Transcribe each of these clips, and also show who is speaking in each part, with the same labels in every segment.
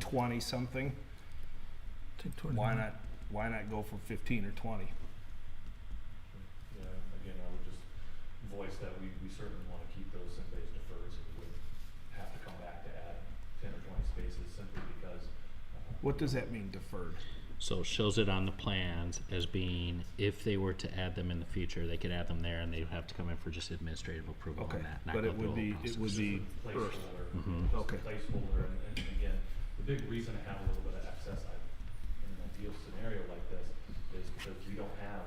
Speaker 1: twenty something,
Speaker 2: Take toward
Speaker 1: why
Speaker 2: the-
Speaker 1: not, why not go for fifteen or twenty?
Speaker 3: Yeah, again, I would just voice that we, we certainly wanna keep those space deferred, so we would have to come back to add ten or twenty spaces simply because. uh,
Speaker 1: What does that mean deferred?
Speaker 4: So shows it on the plans as being, if they were to add them in the future, they could add them there and they would have to come in for just administrative approval
Speaker 1: Okay,
Speaker 4: on that. not
Speaker 1: but
Speaker 4: go
Speaker 1: it
Speaker 4: through
Speaker 1: would
Speaker 4: the
Speaker 1: be,
Speaker 4: whole
Speaker 1: it would
Speaker 4: process.
Speaker 1: be earth.
Speaker 3: placeholder,
Speaker 4: Mhm.
Speaker 3: just
Speaker 1: Okay.
Speaker 3: a placeholder, and, and again, the big reason to have a little bit of excess, I, in an ideal scenario like this, is because we don't have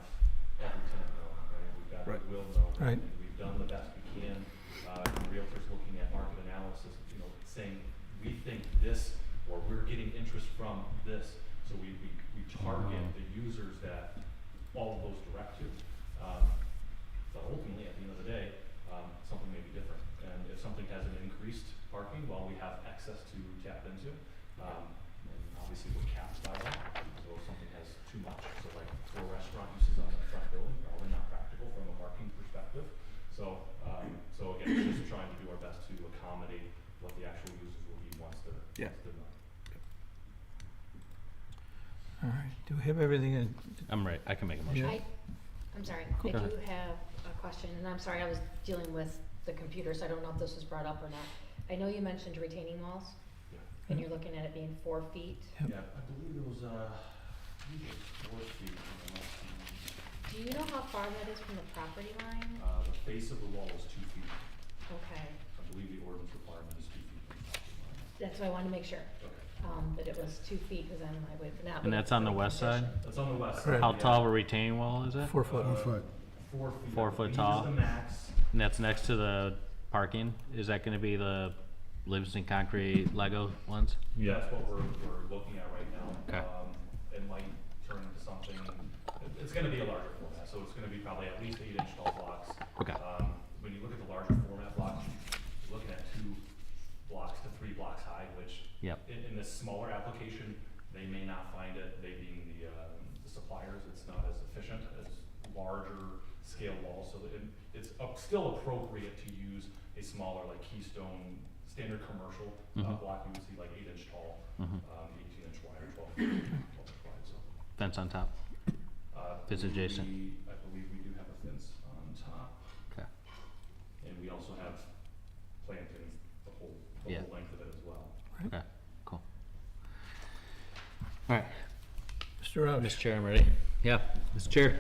Speaker 3: every tenant knowing, right? We've got,
Speaker 1: Right.
Speaker 3: we will know,
Speaker 2: Right.
Speaker 3: and we've done the best we can, uh, and realtors looking at market analysis, you know, saying, we think this, or we're getting interest from this, so we, we, we target
Speaker 4: Mhm.
Speaker 3: the users that all of those direct to. Um, but ultimately, at the end of the day, um, something may be different. And if something has an increased parking, well, we have access to tap into. Um, and obviously, we're capped by that. So if something has too much, so like for restaurant uses on the front building, probably not practical from a parking perspective. So, um, so again, we're just trying to do our best to accommodate what the actual users will be once they're,
Speaker 1: Yeah.
Speaker 3: once they're done.
Speaker 2: All right, do we have everything in?
Speaker 4: I'm right, I can make a
Speaker 2: Yeah.
Speaker 4: motion.
Speaker 5: I, I'm sorry, I
Speaker 2: Cool.
Speaker 5: do
Speaker 4: Go
Speaker 5: have a question, and I'm sorry, I was dealing with the computer, so I don't know if this was brought up or not. I know you mentioned retaining walls,
Speaker 3: Yeah.
Speaker 5: and you're looking at it being four feet.
Speaker 2: Yep.
Speaker 3: Yeah, I believe it was, uh, I believe it was four feet, you know,
Speaker 5: Do you know how far that is from the property line?
Speaker 3: uh, the face of the wall is two feet.
Speaker 5: Okay,
Speaker 3: I believe the ordinance requirement is two feet from the property line.
Speaker 5: that's why I wanted to make sure,
Speaker 3: Okay.
Speaker 5: um, that it was two feet, cause I'm like, wait, but not.
Speaker 4: And that's on the west side?
Speaker 3: That's on the west side.
Speaker 2: Correct.
Speaker 4: How
Speaker 3: yeah.
Speaker 4: tall of a retaining wall is it?
Speaker 2: Four foot.
Speaker 3: Uh,
Speaker 6: foot.
Speaker 3: Four feet.
Speaker 4: Four
Speaker 3: I
Speaker 4: foot
Speaker 3: believe is
Speaker 4: tall.
Speaker 3: the max.
Speaker 4: And that's next to the parking? Is that gonna be the Livingston concrete Lego ones?
Speaker 3: That's what we're, we're looking at right now.
Speaker 4: Okay.
Speaker 3: Um, It might turn into something, it- it's gonna be a larger format, so it's gonna be probably at least eight inch tall blocks.
Speaker 4: Okay.
Speaker 3: Um, When you look at the larger format blocks, you're looking at two blocks to three blocks high, which
Speaker 4: Yep.
Speaker 3: in, in this smaller application, they may not find it, they being the, um, the suppliers, it's not as efficient as larger scale walls, so it, it's up- still appropriate to use a smaller, like Keystone, standard commercial, uh,
Speaker 4: Mhm.
Speaker 3: block, you would see like eight inch tall,
Speaker 4: Mhm.
Speaker 3: um, eighteen inch wide or twelve, twelve inch wide, so.
Speaker 4: Fence on top?
Speaker 3: uh,
Speaker 4: Fence
Speaker 3: we-
Speaker 4: adjacent.
Speaker 3: I believe we do have a fence on top,
Speaker 4: Okay.
Speaker 3: and we also have plantings the whole, the
Speaker 4: Yeah.
Speaker 3: whole length of it as well.
Speaker 4: Okay, cool. Alright,
Speaker 2: Mr. Roush?
Speaker 4: Mr. Oh, Chair, I'm ready. Yeah, Mr. Chair.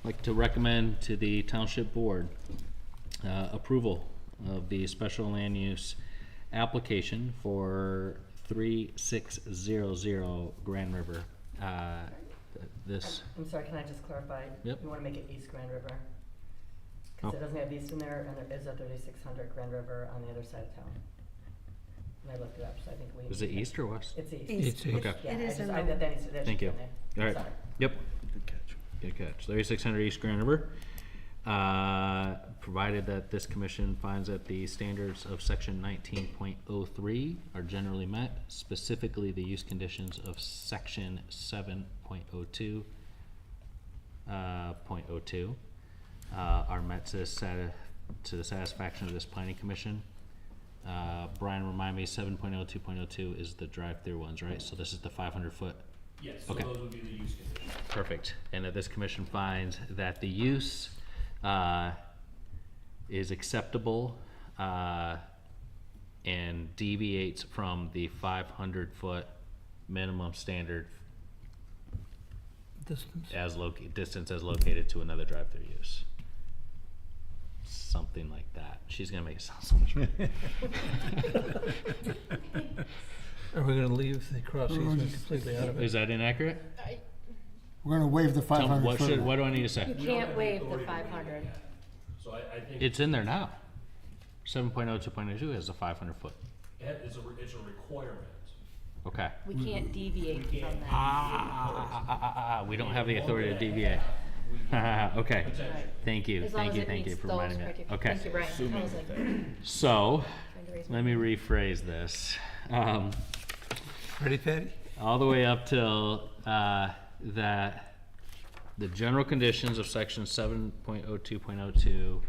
Speaker 4: I'd Like to recommend to the Township Board uh, approval of the special land use application for three six zero zero Grand River. Uh, th- This,
Speaker 7: I'm sorry, can I just clarify?
Speaker 4: Yep.
Speaker 7: You wanna make it East Grand River? Cause
Speaker 4: Oh.
Speaker 7: it doesn't have east in there, and there is a thirty-six hundred Grand River on the other side of town. And I looked it up, so I think we.
Speaker 4: is it east or west?
Speaker 7: It's east.
Speaker 2: It's east.
Speaker 4: Okay.
Speaker 7: Yeah,
Speaker 8: It
Speaker 7: I
Speaker 8: is
Speaker 7: just,
Speaker 8: in
Speaker 7: I,
Speaker 8: the-
Speaker 7: that, that needs to, that should
Speaker 4: Thank
Speaker 7: be
Speaker 4: you.
Speaker 7: in there.
Speaker 4: All right.
Speaker 7: Sorry.
Speaker 4: Yep. Good catch. Thirty-six hundred East Grand River. Uh, provided that this commission finds that the standards of section nineteen point oh three are generally met, specifically the use conditions of section seven point oh two, uh, point oh two, uh, are met to sati- to the satisfaction of this planning commission. Uh, Brian, remind me, seven point oh two point oh two is the drive-through ones, right? So this is the five hundred foot
Speaker 3: Yes,
Speaker 4: so Okay.
Speaker 3: would be the use conditions.
Speaker 4: Perfect. And that this commission finds that the use uh, is acceptable uh, and deviates from the 500-foot minimum standard
Speaker 2: Distance.
Speaker 4: as loc, distance as located to another drive-through use. Something like that. She's gonna make it sound so much better.
Speaker 2: Are we gonna leave the cross easement completely out of it?
Speaker 4: Is that inaccurate?
Speaker 6: We're gonna waive the
Speaker 4: Tell me,
Speaker 6: 500
Speaker 4: what should,
Speaker 6: foot.
Speaker 4: what do I need to say?
Speaker 5: You can't waive the five hundred.
Speaker 9: So I, I think
Speaker 4: It's in there now. oh, 7.02.02 has a 500-foot.
Speaker 9: that is a, re- it's a requirement.
Speaker 4: Okay.
Speaker 5: We can't deviate
Speaker 4: Mm-hmm.
Speaker 5: from that.
Speaker 4: Ah, ah, ah, ah, ah, we don't have the authority to deviate. Okay,
Speaker 5: Right.
Speaker 4: thank you,
Speaker 5: As long
Speaker 4: thank
Speaker 5: as
Speaker 4: you,
Speaker 5: it
Speaker 4: thank you
Speaker 5: meets
Speaker 4: for
Speaker 5: those
Speaker 4: reminding me.
Speaker 5: criteria.
Speaker 4: Okay,
Speaker 5: Thank you, Brian. I was like,
Speaker 4: so,
Speaker 5: trying to raise my
Speaker 4: let me rephrase this. Um,
Speaker 2: Ready, Patty?
Speaker 4: all the way up till, uh, that the general conditions of section seven point oh two point oh two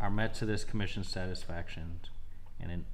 Speaker 4: are met to this commission's satisfaction, and an